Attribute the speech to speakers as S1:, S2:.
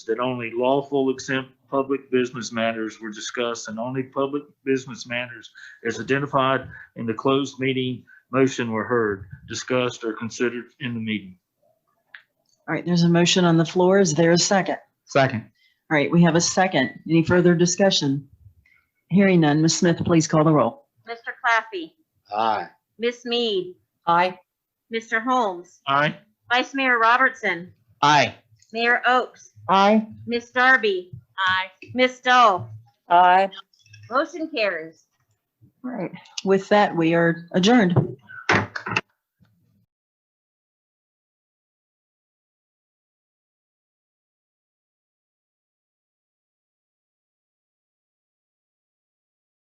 S1: that only lawful exempt public business matters were discussed and only public business matters as identified in the closed meeting motion were heard, discussed, or considered in the meeting.
S2: All right, there's a motion on the floor. Is there a second?
S3: Second.
S2: All right, we have a second. Any further discussion? Hearing none, Ms. Smith, please call the roll.
S4: Mr. Claffey,
S3: Aye.
S4: Miss Mead,
S2: Aye.
S4: Mr. Holmes,
S1: Aye.
S4: Vice Mayor Robertson,
S3: Aye.
S4: Mayor Oakes,
S2: Aye.
S4: Miss Darby. Aye. Miss Dahl.
S5: Aye.
S4: Motion carries.
S2: All right, with that, we are adjourned.